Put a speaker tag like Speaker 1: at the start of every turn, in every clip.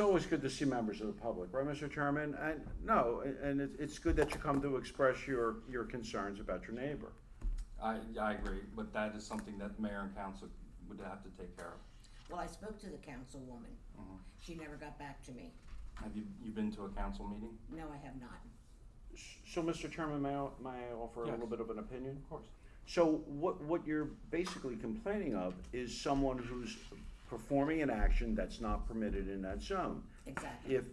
Speaker 1: always good to see members of the public, right, Mr. Chairman? And, no, and- and it's, it's good that you come to express your, your concerns about your neighbor.
Speaker 2: I, I agree, but that is something that mayor and council would have to take care of.
Speaker 3: Well, I spoke to the councilwoman.
Speaker 1: Uh-huh.
Speaker 3: She never got back to me.
Speaker 2: Have you, you been to a council meeting?
Speaker 3: No, I have not.
Speaker 1: So, Mr. Chairman, may I, may I offer a little
Speaker 2: Yes.
Speaker 1: bit of an opinion?
Speaker 2: Of course.
Speaker 1: So what, what you're basically complaining of is someone who's performing an action that's not permitted in that zone.
Speaker 3: Exactly.
Speaker 1: If,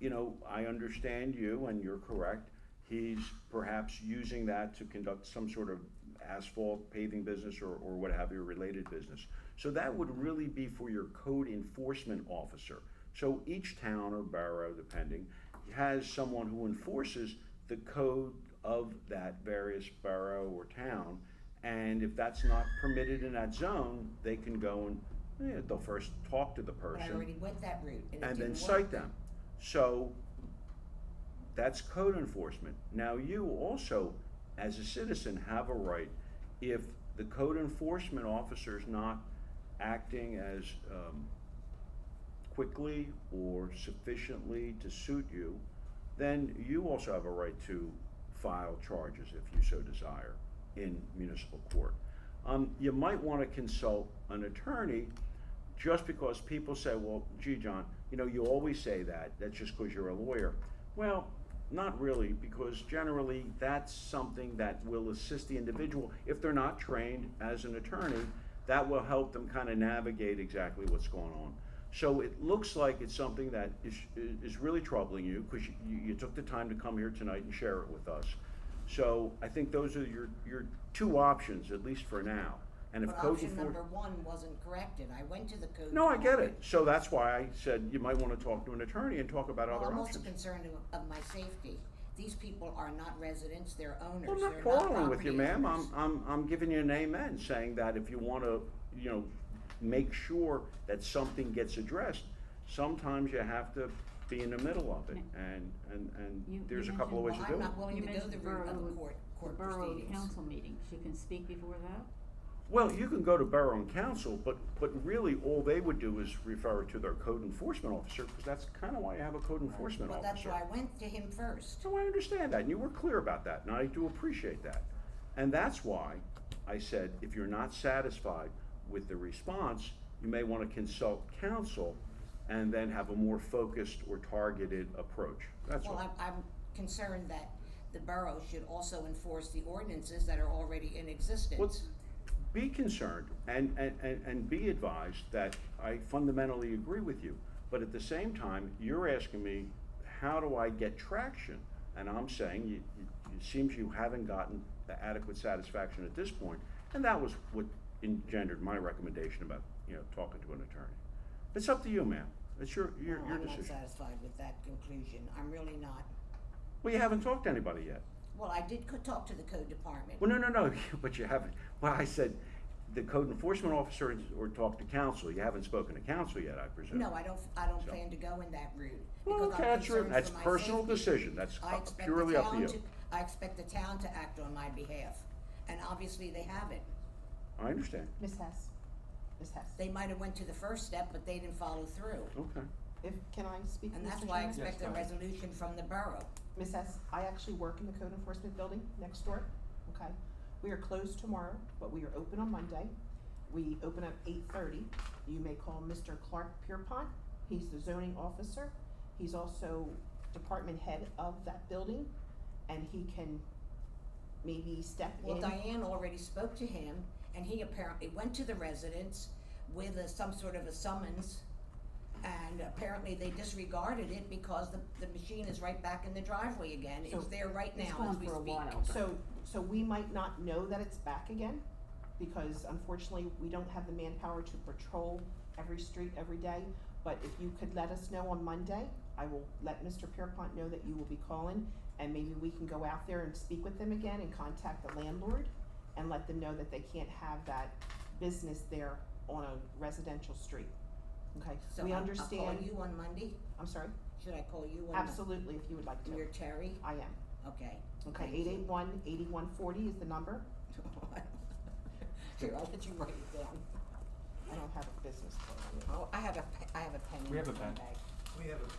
Speaker 1: you know, I understand you and you're correct, he's perhaps using that to conduct some sort of asphalt paving business or, or what have you, related business. So that would really be for your code enforcement officer. So each town or borough, depending, has someone who enforces the code of that various borough or town. And if that's not permitted in that zone, they can go and, eh, they'll first talk to the
Speaker 3: But I
Speaker 1: person
Speaker 3: already went that route and it
Speaker 1: and then
Speaker 3: didn't
Speaker 1: cite
Speaker 3: work.
Speaker 1: them. So that's code enforcement. Now, you also, as a citizen, have a right if the code enforcement officer is not acting as um, quickly or sufficiently to suit you, then you also have a right to file charges if you so desire in municipal court. Um, you might want to consult an attorney just because people say, well, gee, John, you know, you always say that. That's just because you're a lawyer. Well, not really, because generally that's something that will assist the individual. If they're not trained as an attorney, that will help them kind of navigate exactly what's going on. So it looks like it's something that is, is really troubling you because you, you took the time to come here tonight and share it with us. So I think those are your, your two options, at least for now. And if
Speaker 3: But
Speaker 1: code
Speaker 3: option
Speaker 1: enfor-
Speaker 3: number one wasn't corrected. I went to the code.
Speaker 1: no, I get it.
Speaker 3: department.
Speaker 1: So that's why I said you might want to talk to an attorney and talk about
Speaker 3: Well,
Speaker 1: other
Speaker 3: I'm also
Speaker 1: options.
Speaker 3: concerned of- of my safety. These people are not residents, they're owners.
Speaker 1: Well, I'm not
Speaker 3: They're
Speaker 1: quarreling with you,
Speaker 3: property
Speaker 1: ma'am.
Speaker 3: owners.
Speaker 1: I'm, I'm, I'm giving you an amen, saying that if you want to, you know, make sure that something gets addressed, sometimes you have to be in the middle of it, and, and,
Speaker 4: You-
Speaker 1: and there's a
Speaker 4: you
Speaker 1: couple of ways
Speaker 3: Well,
Speaker 1: to do
Speaker 3: I'm
Speaker 1: it.
Speaker 3: not willing
Speaker 4: You
Speaker 3: to go
Speaker 4: mentioned
Speaker 3: the route of the
Speaker 4: borough-
Speaker 3: court,
Speaker 4: The
Speaker 3: court
Speaker 4: borough
Speaker 3: proceedings.
Speaker 4: council meeting, she can speak before that?
Speaker 1: Well, you can go to borough and council, but, but really, all they would do is refer to their code enforcement officer, because that's kind of why you have a code enforcement
Speaker 3: Well,
Speaker 1: officer.
Speaker 3: that's why I went to him first.
Speaker 1: So I understand that, and you were clear about that, and I do appreciate that. And that's why I said, if you're not satisfied with the response, you may want to consult counsel and then have a more focused or targeted approach. That's
Speaker 3: Well,
Speaker 1: all.
Speaker 3: I'm, I'm concerned that the borough should also enforce the ordinances that are already in existence.
Speaker 1: Be concerned and, and, and, and be advised that I fundamentally agree with you, but at the same time, you're asking me, how do I get traction? And I'm saying, you, you, it seems you haven't gotten the adequate satisfaction at this point, and that was what engendered my recommendation about, you know, talking to an attorney. It's up to you, ma'am, it's your, your, your
Speaker 3: Well, Oh, I'm not
Speaker 1: decision.
Speaker 3: satisfied with that conclusion, I'm really not.
Speaker 1: Well, you haven't talked to anybody yet.
Speaker 3: Well, I did co- talk to the code department.
Speaker 1: Well, no, no, no, but you haven't, well, I said, the code enforcement officer is- or talk to council, you haven't spoken to council yet, I presume.
Speaker 3: No, I don't, I don't
Speaker 1: So-
Speaker 3: plan to go in that route.
Speaker 1: Well,
Speaker 3: because I'm
Speaker 1: okay, that's your-
Speaker 3: concerned for
Speaker 1: that's
Speaker 3: my
Speaker 1: personal
Speaker 3: safety.
Speaker 1: decision. That's
Speaker 3: I
Speaker 1: up-
Speaker 3: expect the
Speaker 1: purely up to
Speaker 3: town
Speaker 1: you.
Speaker 3: I expect the town to act on my behalf, and obviously they haven't.
Speaker 1: I understand,
Speaker 5: Ms. Hess, Ms. Hess,
Speaker 3: They might have went to the first step, but they didn't follow through.
Speaker 1: okay.
Speaker 5: if, can I speak,
Speaker 3: And that's
Speaker 5: Mr.
Speaker 3: why I
Speaker 5: Chairman?
Speaker 3: expect a
Speaker 2: go ahead.
Speaker 3: resolution from the borough.
Speaker 5: Ms. Hess, I actually work in the code enforcement building next door, okay? We are closed tomorrow, but we are open on Monday. We open up eight thirty. You may call Mr. Clark Pierpont. He's the zoning officer. He's also department head of that building, and he can maybe step in.
Speaker 3: Well, Diane already spoke to him, and he apparently went to the residence with a, some sort of a summons. And apparently they disregarded it because the, the machine is right back in the driveway again,
Speaker 5: So,
Speaker 3: it's there right
Speaker 4: It's
Speaker 3: now as
Speaker 4: gone
Speaker 3: we
Speaker 4: for a
Speaker 3: speak.
Speaker 4: while.
Speaker 5: So, so we might not know that it's back again, because unfortunately, we don't have the manpower to patrol every street every day. But if you could let us know on Monday, I will let Mr. Pierpont know that you will be calling, and maybe we can go out there and speak with them again and contact the landlord and let them know that they can't have that business there on a residential street. Okay,
Speaker 3: So
Speaker 5: we
Speaker 3: I'll-
Speaker 5: understand,
Speaker 3: I'll call you on Monday,
Speaker 5: I'm sorry,
Speaker 3: should I call you on? Mon-
Speaker 5: absolutely, if you would like to,
Speaker 3: You're Terry,
Speaker 5: I am.
Speaker 3: okay.
Speaker 5: Okay,
Speaker 3: Thank
Speaker 5: eight
Speaker 3: you.
Speaker 5: eight one, eighty-one forty is the number.
Speaker 3: Here, I'll let you write it down.
Speaker 5: I don't have a business card.
Speaker 3: Oh, I have a, pe- I have a pen in
Speaker 2: We have
Speaker 3: my
Speaker 2: a pen.
Speaker 3: bag.
Speaker 6: we have a